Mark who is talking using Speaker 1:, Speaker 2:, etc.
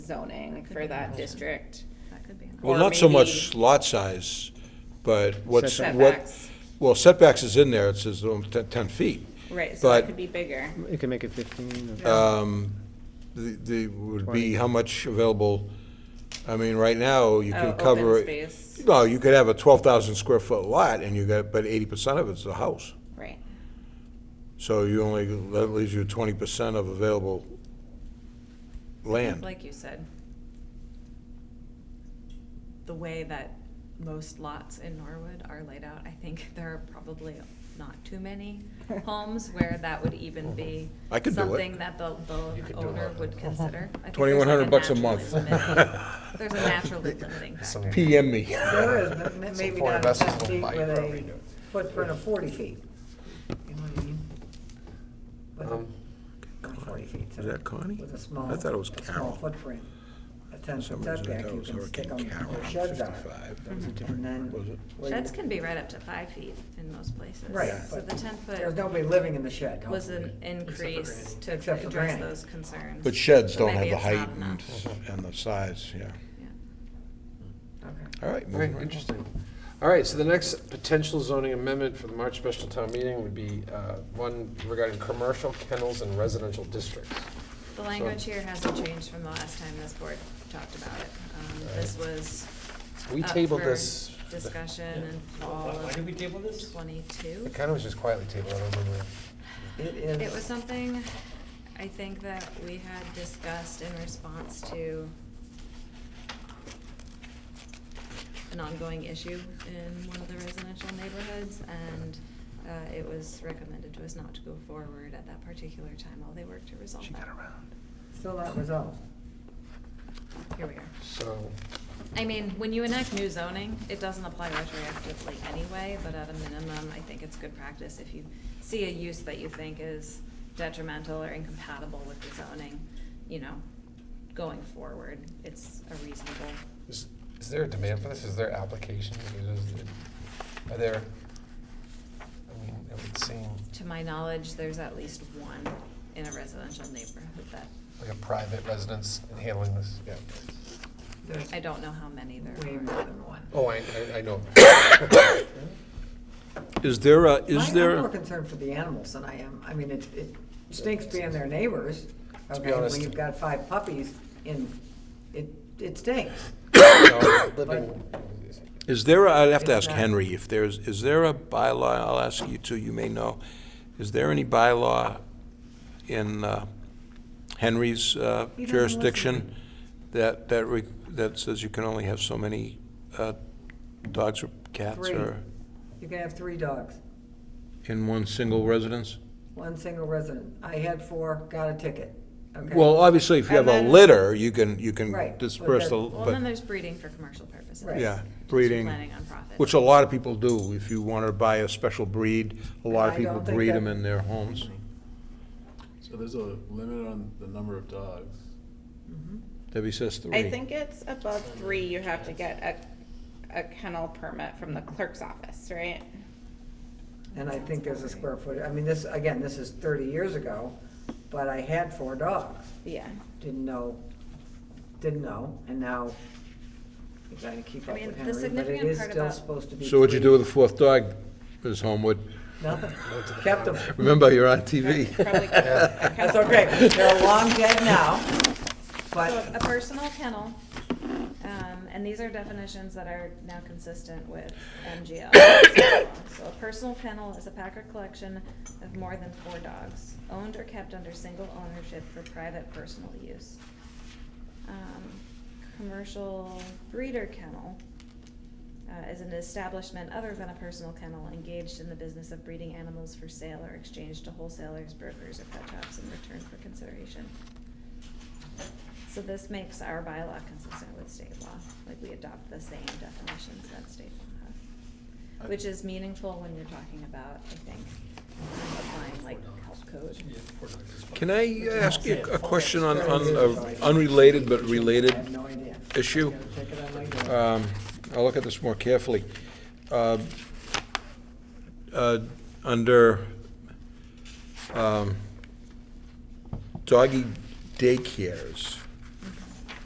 Speaker 1: zoning for that district.
Speaker 2: That could be an
Speaker 1: Or
Speaker 3: Well, not so
Speaker 1: maybe-
Speaker 3: much lot size, but what's, what,
Speaker 1: Setbacks,
Speaker 3: well, setbacks is in there, it says um, ten 10 feet.
Speaker 1: right, so that
Speaker 3: but-
Speaker 1: could be bigger.
Speaker 4: You can make it 15. or-
Speaker 3: Um, The, the, would be how much available, I mean, right now, you
Speaker 1: Oh,
Speaker 3: can
Speaker 1: open
Speaker 3: cover.
Speaker 1: space.
Speaker 3: No, you could have a twelve thousand square foot lot and you got, but eighty percent of it's a house.
Speaker 1: Right.
Speaker 3: So you only, that leaves you twenty percent of available land.
Speaker 2: Like you said, the way that most lots in Norwood are laid out, I think there are probably not too many homes where that would even be
Speaker 3: Mm-hmm. I could do it.
Speaker 2: something that the, the owner
Speaker 5: Uh-huh.
Speaker 2: would consider. I think there's like
Speaker 3: Twenty-one hundred bucks a
Speaker 2: natural
Speaker 3: month.
Speaker 2: limit. There's a natural limiting factor.
Speaker 3: PM me.
Speaker 5: There is, but ma- maybe
Speaker 6: foreign
Speaker 5: not a
Speaker 6: investors
Speaker 5: ten
Speaker 6: will
Speaker 5: feet
Speaker 6: buy
Speaker 5: with
Speaker 6: it.
Speaker 5: a footprint of forty feet. You know what I mean? With a- not forty feet.
Speaker 3: Is that Connie?
Speaker 5: With a small,
Speaker 3: I thought it was
Speaker 5: a
Speaker 3: Carol.
Speaker 5: small footprint. A ten
Speaker 3: For
Speaker 5: foot
Speaker 3: some reason, I
Speaker 5: setback,
Speaker 3: thought it
Speaker 5: you
Speaker 3: was
Speaker 5: can stick
Speaker 3: Hurricane
Speaker 5: them
Speaker 3: Carol
Speaker 5: where
Speaker 3: on
Speaker 5: sheds are.
Speaker 3: 55. That was a
Speaker 5: And
Speaker 3: different- was
Speaker 5: then.
Speaker 3: it?
Speaker 5: where you-
Speaker 2: Sheds can be right up to five feet in most places.
Speaker 5: Right,
Speaker 2: So
Speaker 5: but
Speaker 2: the ten
Speaker 5: there's
Speaker 2: foot
Speaker 5: nobody living in the shed.
Speaker 2: was an
Speaker 5: hopefully.
Speaker 2: increase to
Speaker 5: Except for
Speaker 2: address
Speaker 5: granny.
Speaker 2: those concerns.
Speaker 3: But sheds
Speaker 2: So
Speaker 3: don't have
Speaker 2: maybe
Speaker 3: the
Speaker 2: it's not
Speaker 3: height and,
Speaker 2: enough.
Speaker 3: and the size, yeah.
Speaker 2: Yeah.
Speaker 5: Okay.
Speaker 3: All right.
Speaker 6: All right,
Speaker 3: moving right along.
Speaker 6: interesting. All right, so the next potential zoning amendment for the March special town meeting would be uh, one regarding commercial kennels in residential districts.
Speaker 2: The language here hasn't changed from the last time this board talked about it. Um, This was
Speaker 6: We
Speaker 2: up
Speaker 6: tabled
Speaker 2: for
Speaker 6: this,
Speaker 2: Discussion in fall
Speaker 7: Why why did we
Speaker 2: of
Speaker 7: table this?
Speaker 2: twenty-two.
Speaker 6: it kind of was just quietly tabled, I don't remember.
Speaker 5: It
Speaker 2: It was
Speaker 5: is,
Speaker 2: something I think that we had discussed in response to an ongoing issue in one of the residential neighborhoods, and uh, it was recommended to us not to go forward at that particular time while they worked to resolve that.
Speaker 5: still not resolved.
Speaker 2: Here we are.
Speaker 6: So,
Speaker 2: I mean, when you enact new zoning, it doesn't apply retroactively anyway, but at a minimum, I think it's good practice if you see a use that you think is detrimental or incompatible with the zoning, you know, going forward, it's a reasonable.
Speaker 6: is, is there a demand for this? Is there application? Is- is- Are there, I mean, it would seem
Speaker 2: To my knowledge, there's at least one in a residential neighborhood that,
Speaker 6: like a private residence in handling this, yeah.
Speaker 5: There's
Speaker 2: I don't know how many there
Speaker 5: way more
Speaker 2: are.
Speaker 5: than one.
Speaker 6: Oh, I, I- I know.
Speaker 3: Is there a,
Speaker 5: I-
Speaker 3: is
Speaker 5: I'm more
Speaker 3: there,
Speaker 5: concerned for the animals than I am, I mean, it, it stinks being their neighbors.
Speaker 6: be
Speaker 5: Okay,
Speaker 6: honest-
Speaker 5: when you've got five puppies and it, it stinks.
Speaker 6: No, Living,
Speaker 3: is there, a- I'd have to
Speaker 5: It's
Speaker 3: ask
Speaker 5: not-
Speaker 3: Henry if there's, is there a bylaw, I'll ask you too, you may know. Is there any bylaw in uh, Henry's uh,
Speaker 5: listen.
Speaker 3: jurisdiction that, that, re- that says you can only have so many uh, dogs or cats
Speaker 5: Three.
Speaker 3: or
Speaker 5: You can have three dogs,
Speaker 3: in one single residence?
Speaker 5: one single resident. I had four, got a ticket. Okay.
Speaker 3: Well, obviously, if you have
Speaker 5: And
Speaker 3: a
Speaker 5: then-
Speaker 3: litter, you can, you
Speaker 5: Right,
Speaker 3: can
Speaker 5: but
Speaker 3: disperse the,
Speaker 5: that-
Speaker 2: Well, then
Speaker 3: but,
Speaker 2: there's breeding for commercial purposes.
Speaker 5: Right.
Speaker 3: yeah,
Speaker 2: Just
Speaker 3: breeding.
Speaker 2: Planning on profit.
Speaker 3: Which a lot of people do. If you want to buy a special breed, a lot of
Speaker 5: I
Speaker 3: people
Speaker 5: don't think
Speaker 3: breed
Speaker 5: that-
Speaker 3: them in their homes.
Speaker 8: So there's a limit on the number of dogs.
Speaker 5: Mm-hmm.
Speaker 3: Debbie says three.
Speaker 1: I think it's above three, you have to get a, a kennel permit from the clerk's office, right?
Speaker 5: And I think there's a square foot, I mean, this, again, this is thirty years ago, but I had four dogs.
Speaker 1: Yeah.
Speaker 5: Didn't know, didn't know, and now you gotta keep
Speaker 2: I
Speaker 5: up
Speaker 2: mean,
Speaker 5: with
Speaker 2: the
Speaker 5: Henry, but it
Speaker 2: significant
Speaker 5: is
Speaker 2: part
Speaker 5: still
Speaker 2: about-
Speaker 5: supposed to be.
Speaker 3: So what'd you
Speaker 5: three.
Speaker 3: do with the fourth dog, Ms. Homewood?
Speaker 5: Nothing. Kept them.
Speaker 3: Remember, you're on TV.
Speaker 1: Probably- a
Speaker 5: That's
Speaker 1: kennel-
Speaker 5: okay. They're long dead now,
Speaker 2: So
Speaker 5: but
Speaker 2: a personal kennel, um, and these are definitions that are now consistent with MGL. So a personal kennel is a pack or collection of more than four dogs, owned or kept under single ownership for private personal use. Um, Commercial breeder kennel uh, is an establishment other than a personal kennel engaged in the business of breeding animals for sale or exchange to wholesalers, brokers, or pet shops in return for consideration. So this makes our bylaw consistent with state law, like we adopt the same definitions that state law has. Which is meaningful when you're talking about, I think, applying like health code.
Speaker 3: Can I ask you a question on, on a unrelated but
Speaker 5: I have
Speaker 3: related
Speaker 5: no idea.
Speaker 3: issue?
Speaker 5: Gotta check it on my door.
Speaker 3: Um, I'll look at this more carefully. Um, uh, Under um, doggy daycares,